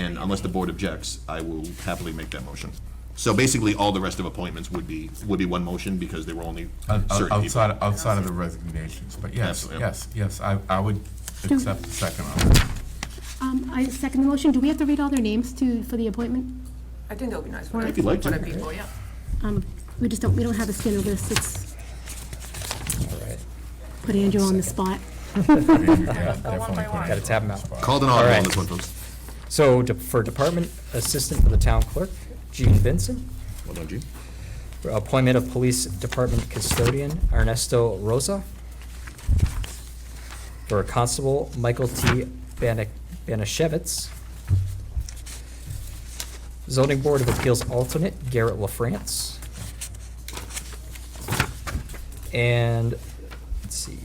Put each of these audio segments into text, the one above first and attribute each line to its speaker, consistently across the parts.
Speaker 1: And unless the board objects, I will happily make that motion. So basically, all the rest of appointments would be, would be one motion because they were only
Speaker 2: Out- out-
Speaker 1: certain people.
Speaker 2: Outside, outside of the resignations, but yes,
Speaker 1: Absolutely.
Speaker 2: yes, yes, I, I would accept the second one.
Speaker 3: Um, I second the motion. Do we have to read all their names to, for the appointment?
Speaker 4: I think that would be nice. If
Speaker 1: you'd like to.
Speaker 4: people, yeah.
Speaker 3: Um, we just don't, we don't have a standard list. It's,
Speaker 5: All right.
Speaker 3: put Andrew on the spot.
Speaker 2: Yeah, definitely put it
Speaker 5: Gotta tap 'em out.
Speaker 1: Called an audible on
Speaker 5: Alright.
Speaker 1: this one, folks.
Speaker 5: So de- for Department Assistant for the Town Clerk, Jean Vincent.
Speaker 1: Well done, Gene.
Speaker 5: For Appointment of Police Department Custodian, Ernesto Rosa. For Constable, Michael T. Bana- Banashevitz. Zoning Board of Appeals Alternate, Garrett LaFrance. And, let's see,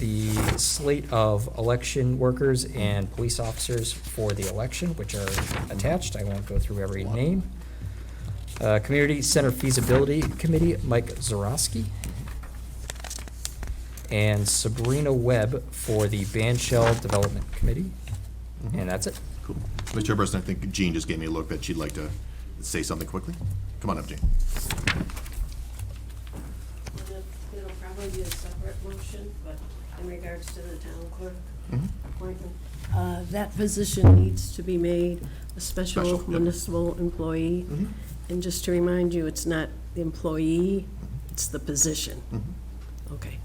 Speaker 5: the slate of election workers and police officers for the election, which are attached. I won't go through every name. Uh, Community Center Feasibility Committee, Mike Zarowski. And Sabrina Webb for the Ban Shell Development Committee.
Speaker 1: Mm-hmm.
Speaker 5: And that's it.
Speaker 1: Cool. Mr. Chairperson, I think Jean just gave me a look that she'd like to say something quickly. Come on up, Jean.
Speaker 6: It'll probably be a separate motion, but in regards to the town clerk appointment, uh, that position needs to be made a
Speaker 1: Special, Mm-hmm.
Speaker 6: special
Speaker 1: yep.
Speaker 6: municipal employee. And just to remind you, it's not the employee,
Speaker 1: Mm-hmm.
Speaker 6: it's the position. Okay.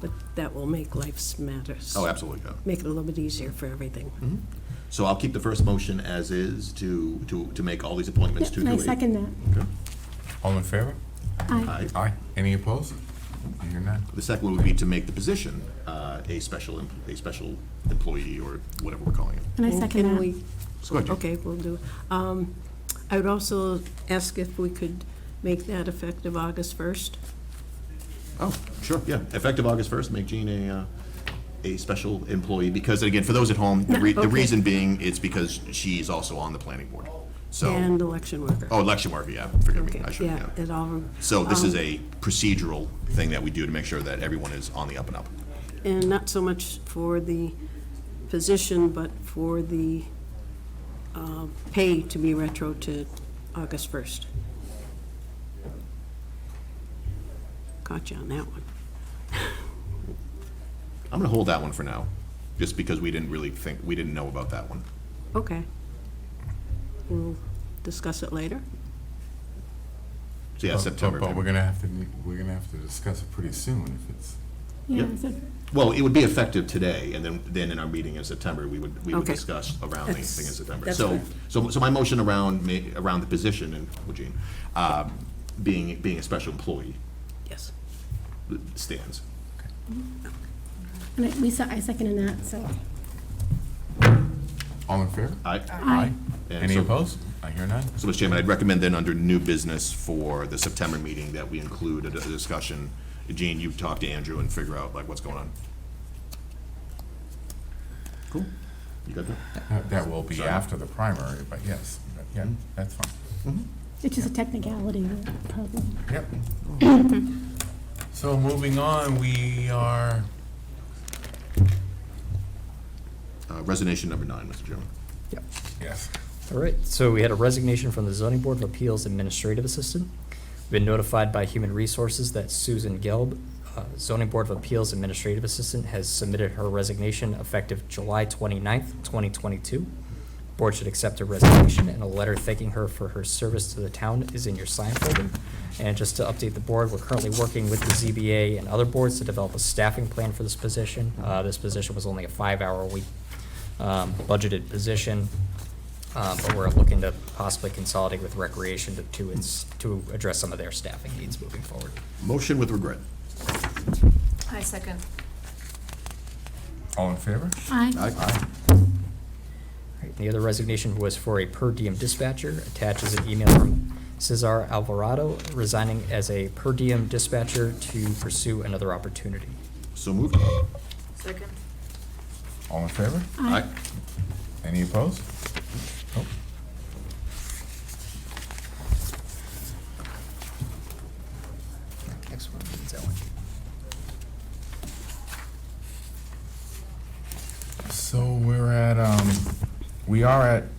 Speaker 6: But that will make life's matters.
Speaker 1: Oh, absolutely, yeah. Mm-hmm.
Speaker 6: Make it a little bit easier for everything.
Speaker 1: So I'll keep the first motion as is to, to, to make all these appointments to
Speaker 3: And
Speaker 1: do
Speaker 3: I
Speaker 1: it.
Speaker 3: second that.
Speaker 2: All in favor?
Speaker 3: Aye.
Speaker 1: Aye.
Speaker 2: Aye. Any opposed? I hear none.
Speaker 1: The second one would be to make the position uh, a special, em- a special employee or whatever we're calling it.
Speaker 3: And I
Speaker 6: And
Speaker 3: second
Speaker 6: can
Speaker 3: that.
Speaker 6: we-
Speaker 1: So go ahead, Jean.
Speaker 6: Okay, we'll do. Um, I would also ask if we could make that effective August 1st.
Speaker 1: Oh, sure, yeah. Effective August 1st, make Jean a, uh, a special employee, because again, for those at home, the re- the
Speaker 6: Okay.
Speaker 1: reason being, it's because she's also on the planning board. So,
Speaker 6: And election worker.
Speaker 1: oh, election worker, yeah, forgive me,
Speaker 6: Okay, um,
Speaker 1: I should, yeah.
Speaker 6: It all,
Speaker 1: So this is a procedural thing that we do to make sure that everyone is on the up and up.
Speaker 6: and not so much for the position, but for the uh, pay to be retro to August 1st. Caught you on that one.
Speaker 1: I'm gonna hold that one for now, just because we didn't really think, we didn't know about that one.
Speaker 6: Okay. We'll discuss it later.
Speaker 1: So yeah,
Speaker 2: But-
Speaker 1: September.
Speaker 2: But we're gonna have to, ne- we're gonna have to discuss it pretty soon if it's,
Speaker 3: Yeah,
Speaker 1: Yep.
Speaker 3: so
Speaker 1: Well, it would be effective today, and then, then in our meeting in September, we would, we would
Speaker 6: Okay.
Speaker 1: discuss around the
Speaker 6: That's-
Speaker 1: thing in September.
Speaker 6: that's
Speaker 1: So,
Speaker 6: fine.
Speaker 1: so, so my motion around, ma- around the position, and, well, Jean, um, being, being a special employee
Speaker 6: Yes.
Speaker 1: stands.
Speaker 3: And I- we, se- I second in that, so.
Speaker 2: all in favor?
Speaker 1: Aye.
Speaker 3: Aye.
Speaker 1: And
Speaker 2: Any
Speaker 1: so-
Speaker 2: opposed? I hear none.
Speaker 1: So, Mr. Chairman, I'd recommend then, under new business for the September meeting, that we include a a discussion. Jean, you talk to Andrew and figure out, like, what's going on. Cool. You got that?
Speaker 2: That- That will be
Speaker 1: Sorry. Mm-hmm.
Speaker 2: after the primary, but yes, but yeah, that's fine.
Speaker 3: It's just a technicality problem.
Speaker 2: Yep. So moving on, we are,
Speaker 1: Uh, Resignation number nine, Mr. Chairman.
Speaker 5: Yep.
Speaker 2: yes,
Speaker 5: All right, so we had a resignation from the Zoning Board of Appeals Administrative Assistant. We've Been notified by Human Resources that Susan Gelb, uh, Zoning Board of Appeals Administrative Assistant, has submitted her resignation effective July 29th, 2022. Board should accept her resignation, and a letter thanking her for her service to the town is in your sign folder. And just to update the board, we're currently working with the ZBA and other boards to develop a staffing plan for this position. Uh, This position was only a five-hour a week um, budgeted position. Um, but we're looking to possibly consolidate with recreation to, to, ins- to address some of their staffing needs moving forward.
Speaker 1: Motion with regret.
Speaker 4: I second.
Speaker 2: all in favor?
Speaker 3: Aye.
Speaker 5: Right, and The other resignation was for a per diem dispatcher. Attaches an email from Cesar Alvarado resigning as a per diem dispatcher to pursue another opportunity.
Speaker 1: So moved.
Speaker 4: Second.
Speaker 2: All in favor?
Speaker 3: Aye.
Speaker 2: Any opposed? Nope.
Speaker 5: Next one is Ellen.
Speaker 2: So we're at, um, we are at